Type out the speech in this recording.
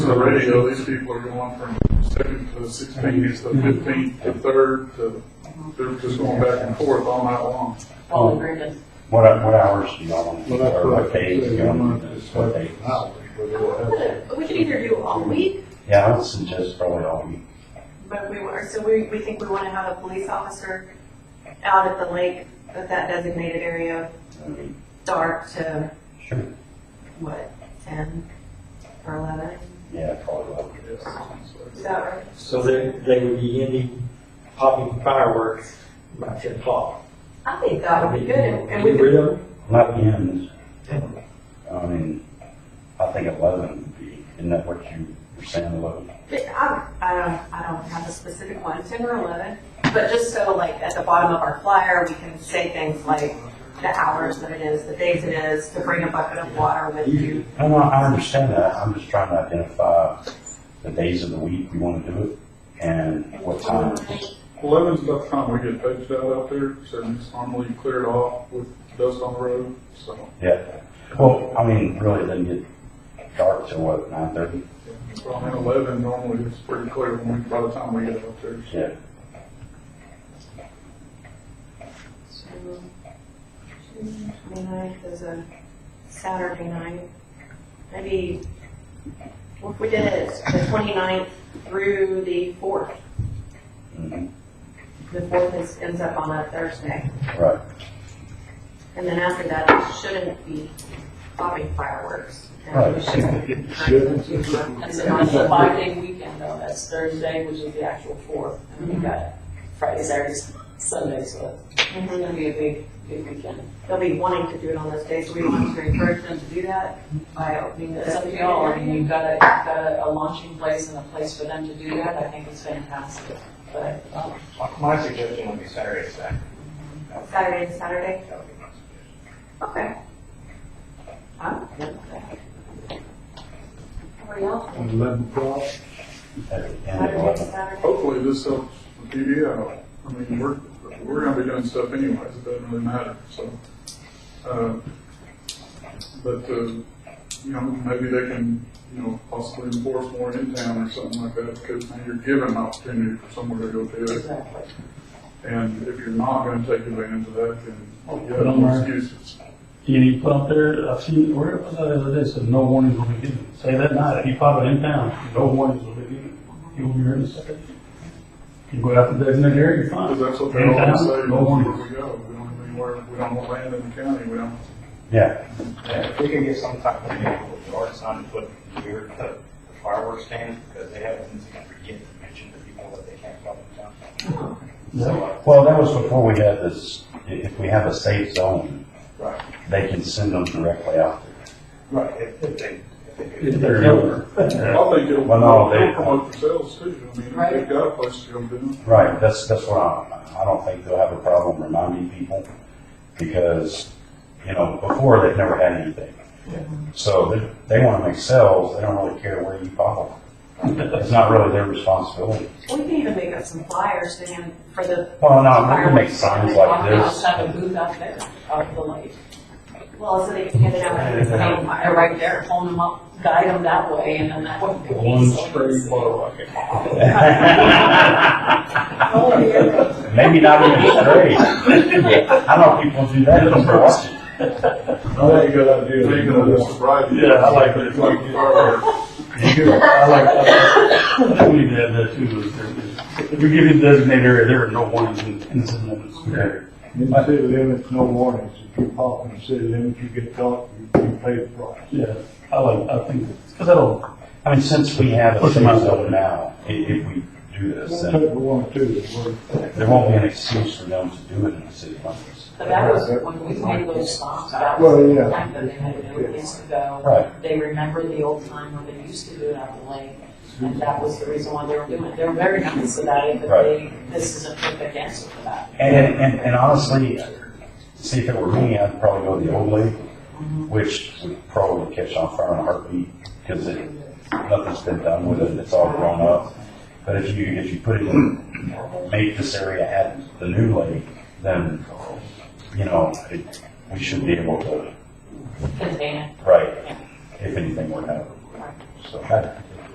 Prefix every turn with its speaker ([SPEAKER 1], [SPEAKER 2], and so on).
[SPEAKER 1] the radio, these people are going from second to sixteenth, to fifteenth, to third, to, they're just going back and forth all night long.
[SPEAKER 2] all agreements.
[SPEAKER 3] Um, What, what hours do y'all want to do, or what days do y'all want to do, this? what day?
[SPEAKER 2] We could either do all week,
[SPEAKER 3] Yeah, I would suggest probably all week.
[SPEAKER 2] but we were, so we, we think we want to have a police officer out at the lake, at that designated area, dark to
[SPEAKER 3] Sure.
[SPEAKER 2] what, ten or eleven?
[SPEAKER 3] Yeah, probably all week.
[SPEAKER 2] Is that right?
[SPEAKER 4] So they, they would be ending popping fireworks by ten o'clock.
[SPEAKER 2] I think that would be good, and and we
[SPEAKER 4] Get rid
[SPEAKER 2] could,
[SPEAKER 4] of them?
[SPEAKER 3] Not ends, I mean, I think eleven would be, isn't that what you were saying, eleven?
[SPEAKER 2] but I, I don't, I don't have a specific one, ten or eleven, but just so like at the bottom of our flyer, we can say things like the hours that it is, the days it is, to bring a bucket of water with you.
[SPEAKER 3] No, no, I understand that, I'm just trying to identify the days of the week we want to do it, and what time.
[SPEAKER 1] Eleven's about the time we get paged out out there, so it's normally cleared off with dust on the road, so.
[SPEAKER 3] Yeah, well, I mean, really, it doesn't get dark till what, nine thirty?
[SPEAKER 1] Around eleven, normally it's pretty clear when we, by the time we get out there.
[SPEAKER 3] Yeah,
[SPEAKER 2] So, June 29th is a Saturday night. Maybe, well, if we did it the 29th through the 4th,
[SPEAKER 3] mhm,
[SPEAKER 2] the 4th is, ends up on a Thursday.
[SPEAKER 3] right,
[SPEAKER 2] And then after that, it shouldn't be popping fireworks. And we
[SPEAKER 3] Right.
[SPEAKER 2] shouldn't-
[SPEAKER 5] That's a nice five-day weekend though, that's Thursday, which is the actual fourth, and we got Friday, Saturday, Sunday, so it's
[SPEAKER 2] Mhm.
[SPEAKER 5] gonna be a big, big weekend.
[SPEAKER 2] They'll be wanting to do it on those days, so we want to encourage them to do that by opening the
[SPEAKER 5] It's up to y'all, I mean, you've got a, you've got a- a launching place and a place for them to do that, I think it's fantastic, but, um,
[SPEAKER 6] My suggestion would be Saturday, Saturday.
[SPEAKER 2] Saturday and Saturday.
[SPEAKER 6] That would be my
[SPEAKER 2] Okay.
[SPEAKER 6] suggestion.
[SPEAKER 2] I'm good with that. Everybody else?
[SPEAKER 3] at the end of
[SPEAKER 2] Saturday,
[SPEAKER 3] eleven.
[SPEAKER 2] Saturday.
[SPEAKER 1] Hopefully this helps the PD out. I mean, we're, we're gonna be doing stuff anyways, it doesn't really matter, so. uh, But, uh, you know, maybe they can, you know, possibly enforce more in town or something like that, because now you're given an opportunity for somewhere to go do it.
[SPEAKER 5] exactly.
[SPEAKER 1] And if you're not gonna take advantage of that, then you have
[SPEAKER 7] Don't
[SPEAKER 1] no
[SPEAKER 7] worry.
[SPEAKER 1] excuses.
[SPEAKER 7] You need to put up there, I've seen, where was that the other day, said no warnings will be given. Say that night, if you pop it in town, no warnings will be given. You will be here in a second. You go out to designated area, you're
[SPEAKER 1] Because
[SPEAKER 7] fine.
[SPEAKER 1] that's what they always say,
[SPEAKER 7] Anytime, no
[SPEAKER 1] where
[SPEAKER 7] warnings.
[SPEAKER 1] we go, we don't have anywhere, we don't want land in the county, we don't.
[SPEAKER 3] Yeah,
[SPEAKER 6] And if we could get some type of vehicle with yard sign to put near the fireworks stand, because they have things that forget to mention to people that they can't come in town. So, uh,
[SPEAKER 3] well, that was before we had this, i- if we have a safe zone,
[SPEAKER 6] right,
[SPEAKER 3] they can send them directly out.
[SPEAKER 6] right, if if they, if they do.
[SPEAKER 7] If
[SPEAKER 3] They're
[SPEAKER 7] they're
[SPEAKER 3] over.
[SPEAKER 7] over.
[SPEAKER 1] I think it'll,
[SPEAKER 3] Well, no, they-
[SPEAKER 1] it'll promote themselves too. I mean, if
[SPEAKER 5] Right.
[SPEAKER 1] they've got a place to go do it.
[SPEAKER 3] Right, that's, that's what I, I don't think they'll have a problem reminding people, because, you know, before, they've never had anything. So they, they wanna make sales, they don't really care where you follow. It's not really their responsibility.
[SPEAKER 2] We can even make up some flyers then for the,
[SPEAKER 3] Well, no, we can make signs like
[SPEAKER 5] I'll just
[SPEAKER 3] this.
[SPEAKER 5] have a booth out there, out of the lake.
[SPEAKER 2] well, so they can hand it out as a
[SPEAKER 5] Hang a fire right there, phone them up, guide them that way, and then that would be.
[SPEAKER 7] One
[SPEAKER 5] so
[SPEAKER 7] straight
[SPEAKER 5] easy.
[SPEAKER 3] Maybe not even straight. I know people do that just for watching.
[SPEAKER 7] I think that idea.
[SPEAKER 1] Taking it as a variety.
[SPEAKER 7] Yeah, I like it.
[SPEAKER 1] It's like fireworks.
[SPEAKER 7] I like, I like, I think we need to add that too, is there- is- if we give you the designated area, there are no warnings in, in the city limits.
[SPEAKER 8] In the city limits, no warnings. If you pop in the city limits, you get caught, you you pay the price.
[SPEAKER 7] Yeah, I like, I think, because that'll,
[SPEAKER 3] I mean, since we have a
[SPEAKER 7] Push them
[SPEAKER 3] safe
[SPEAKER 7] out.
[SPEAKER 3] zone now, i- if we do this,
[SPEAKER 8] Take
[SPEAKER 3] then
[SPEAKER 8] the one or two that work.
[SPEAKER 3] there won't be an excuse for them to do it in the city limits.
[SPEAKER 5] But that was when we made those songs, that
[SPEAKER 8] Well,
[SPEAKER 5] was
[SPEAKER 8] yeah.
[SPEAKER 5] the time that they had no place to go.
[SPEAKER 3] Right.
[SPEAKER 5] They remember the old time when they used to do it out the lake, and that was the reason why they were doing it. They were very nice about it, but they, this is a perfect answer for that.
[SPEAKER 3] And, and, and honestly, see, if it were me, I'd probably go the old way, which would probably catch on fire in a heartbeat, because it, nothing's been done with it, it's all grown up. But if you, if you put it in, make this area at the new lake, then, you know, it, we should be able to,
[SPEAKER 5] Container.
[SPEAKER 3] right, if anything were to happen. So, I,